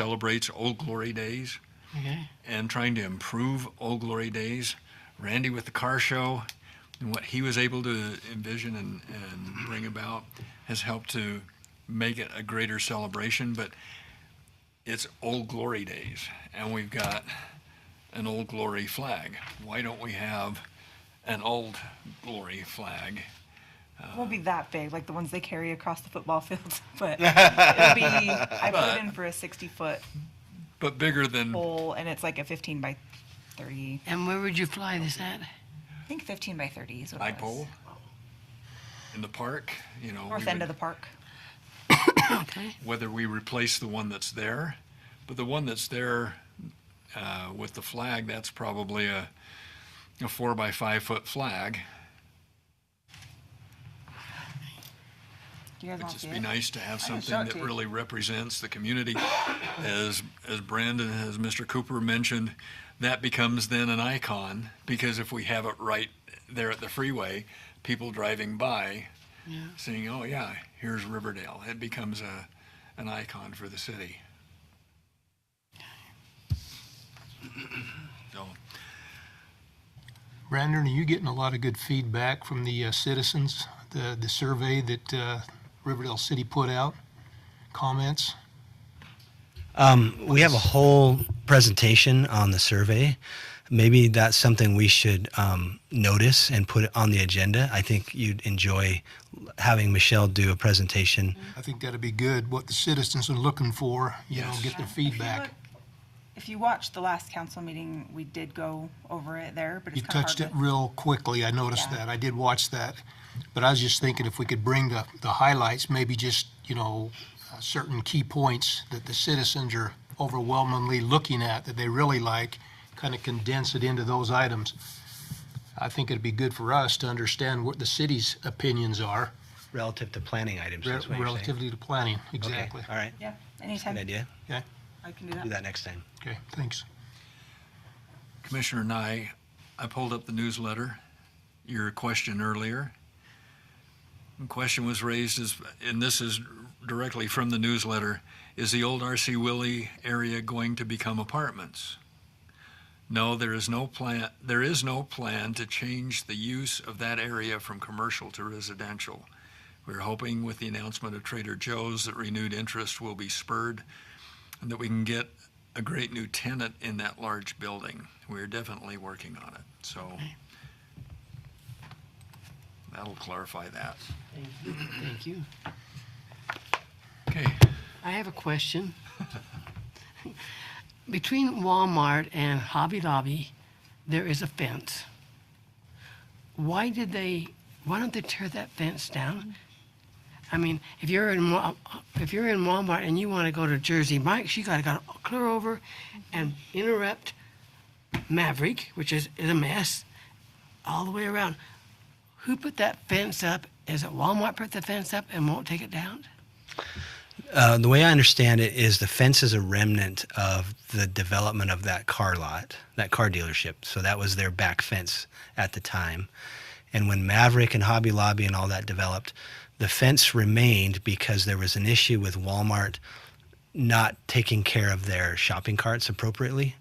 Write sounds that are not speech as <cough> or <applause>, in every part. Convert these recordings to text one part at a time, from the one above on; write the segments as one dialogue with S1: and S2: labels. S1: celebrates Old Glory Days
S2: Okay.
S1: and trying to improve Old Glory Days. Randy with the car show and what he was able to envision and, and bring about has helped to make it a greater celebration. But it's Old Glory Days, and we've got an Old Glory flag. Why don't we have an Old Glory flag?
S3: won't be that big, like the ones they carry across the football field, <laughs>
S1: <laughs>
S3: but it'll be, I
S1: But-
S3: put in for a 60 foot
S1: But bigger than
S3: pole and it's like a 15 by 30.
S2: And where would you fly this at?
S3: I think 15 by 30 is what
S1: my
S3: it was.
S1: pole in the park, you know.
S3: North
S1: we
S3: end
S1: would-
S3: of the park.
S2: Okay.
S1: whether we replace the one that's there. But the one that's there uh, with the flag, that's probably a, a four by five foot flag.
S3: Do you guys
S1: It'd
S3: want to see
S1: just be
S3: it?
S1: nice to have
S3: can
S1: something
S3: show it
S1: that
S3: to you.
S1: really represents the community. As, as Brandon, as Mr. Cooper mentioned, that becomes then an icon because if we have it right there at the freeway, people driving by saying, oh yeah, here's Riverdale. It becomes a, an icon for the city. So,
S4: Brandon, are you getting a lot of good feedback from the uh, citizens? The the survey that uh, Riverdale City put out, comments.
S5: We have a whole presentation on the survey. Maybe that's something we should um, notice and put it on the agenda. I think you'd enjoy having Michelle do a presentation.
S4: I think that'd be good. What the citizens are looking for, you
S1: Yes.
S4: know, get their
S3: If you
S4: feedback.
S3: look- If you watched the last council meeting, we did go over it there, but
S4: You
S3: it's kind of hard.
S4: touched it
S3: to-
S4: real quickly. I noticed
S3: Yeah.
S4: that. I did watch that, but I was just thinking if we could bring the the highlights, maybe just you know, uh, certain key points that the citizens are overwhelmingly looking at that they really like, kind of condense it into those items. I think it'd be good for us to understand what the city's opinions are
S5: Relative to planning items,
S4: re-
S5: that's what you're saying?
S4: relatively to planning.
S5: Okay,
S4: Exactly.
S5: All right,
S3: Yeah,
S5: good
S3: anytime.
S5: idea.
S4: Okay.
S3: I can do
S5: Do
S3: that.
S5: that next time.
S4: Okay. Thanks.
S1: Commissioner Nye, I pulled up the newsletter, your question earlier. The Question was raised is, and this is directly from the newsletter, is the old RC Willie area going to become apartments? No, there is no plan, there is no plan to change the use of that area from commercial to residential. We're hoping with the announcement of Trader Joe's that renewed interest will be spurred and that we can get a great new tenant in that large building. We're definitely working on it, so that'll clarify that.
S2: Thank you.
S1: Okay,
S2: I have a question. <laughs> Between Walmart and Hobby Lobby, there is a fence. Why did they, why don't they tear that fence down? I mean, if you're in, Wa- if you're in Walmart and you want to go to Jersey Mike's, you gotta go clear over and interrupt Maverick, which is, is a mess, all the way around. Who put that fence up? Is it Walmart put the fence up and won't take it down?
S5: Uh, the way I understand it is the fence is a remnant of the development of that car lot, that car dealership. So that was their back fence at the time. And when Maverick and Hobby Lobby and all that developed, the fence remained because there was an issue with Walmart not taking care of their shopping carts appropriately.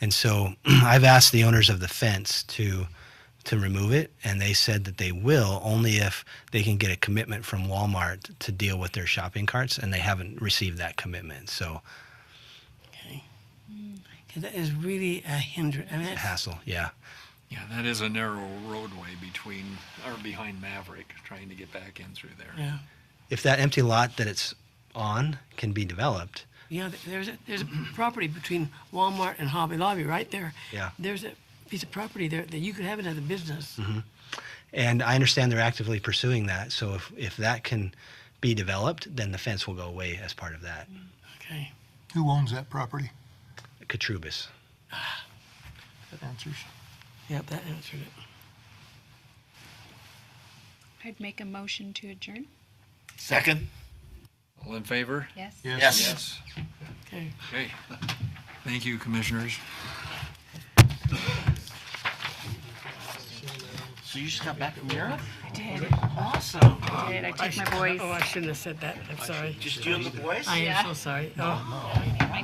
S5: And so <clears throat> I've asked the owners of the fence to to remove it, and they said that they will only if they can get a commitment from Walmart to deal with their shopping carts, and they haven't received that commitment. So
S2: Because that is really a hindrance. I mean, that's-
S5: hassle, yeah.
S1: yeah, that is a narrow roadway between, or behind Maverick, trying to get back in through there.
S2: yeah,
S5: If that empty lot that it's on can be developed,
S2: yeah. th- There's a, there's a property between Walmart and Hobby Lobby right there.
S5: Yeah.
S2: There's a piece of property there that you could have another business.
S5: and I understand they're actively pursuing that. So if if that can be developed, then the fence will go away as part of that.
S2: Okay.
S4: Who owns that property?
S5: Katrubis.
S4: That answers.
S2: Yep, that answered it.
S6: I'd make a motion to adjourn.
S7: Second?
S1: All in favor?
S6: Yes.
S7: Yes.
S1: Yes.
S2: Okay.
S1: Okay. Thank you, commissioners.
S7: So you just got back from Europe?
S3: I did.
S7: Awesome.
S6: I did. I
S2: <laughs>
S6: took my boys.
S2: Oh, I shouldn't have said that. I'm sorry.
S7: Just you and the boys?
S2: I am so sorry. Oh.